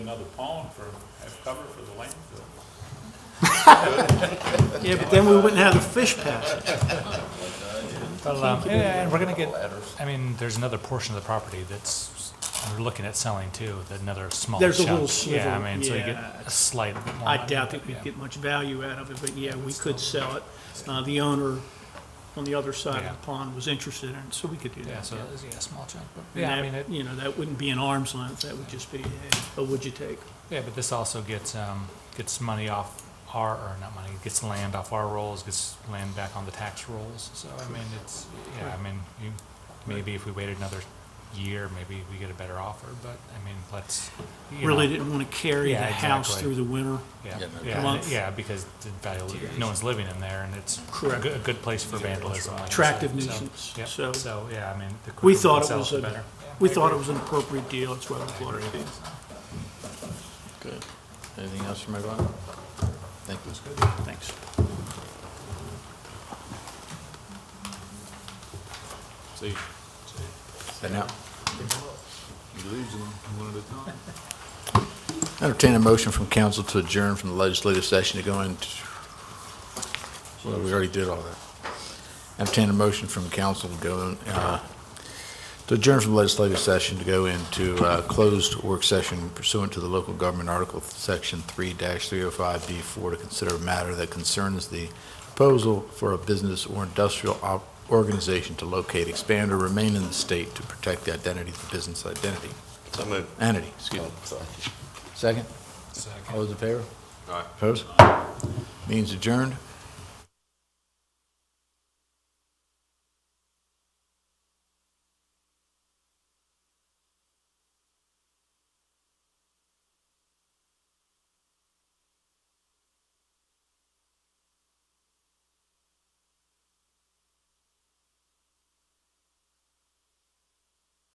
another pond for, have cover for the landfill. Yeah, but then we wouldn't have the fish passage. Well, um, yeah, and we're gonna get, I mean, there's another portion of the property that's, we're looking at selling too, that another small chunk. There's a little Yeah, sliver, I mean, so you get yeah. a slight. I lot, doubt that yeah. we'd get much value out of it, but yeah, we could sell it. Uh, The owner on the other side of Yeah. the pond was interested in it, so we could do Yeah, that. so, it's, yeah, a small chunk, but, And yeah, I that- mean, it, You know, that wouldn't be an arm's length, that would just be, hey, oh, would you take? yeah, but this also gets, um, gets money off our, or not money, gets land off our rolls, gets land back on the tax rolls, so, I mean, it's, yeah, I mean, you, maybe if we waited another year, maybe we get a better offer, but, I mean, let's, you Really know, didn't want to carry the Yeah, house exactly. through the winter. Yeah, Yeah, no yeah, doubt. and- yeah, because the value, no one's living in there, and it's a Correct. good, a good place for vandalism. like I said, Attractive so, nuisance, yep, so- So, yeah, I mean, the quicker We we thought can it sell it, was, the a better. we thought it was an appropriate deal, that's why we thought it did. Good. Anything else from everyone? Thank you. Thanks. See, And now, you lose them one at a time. entertain a motion from council to adjourn from the legislative session to go into, well, we already did all that. Entertain a motion from council to go, in, uh, to adjourn from legislative session to go into uh, closed work session pursuant to the local government article, section 3-305B4, to consider a matter that concerns the proposal for a business or industrial op- organization to locate, expand, or remain in the state to protect the identity of the business identity. So moved. Oh, Entity, excuse me. Second? Second. All those in favor? Aye. Opposed? Means adjourned.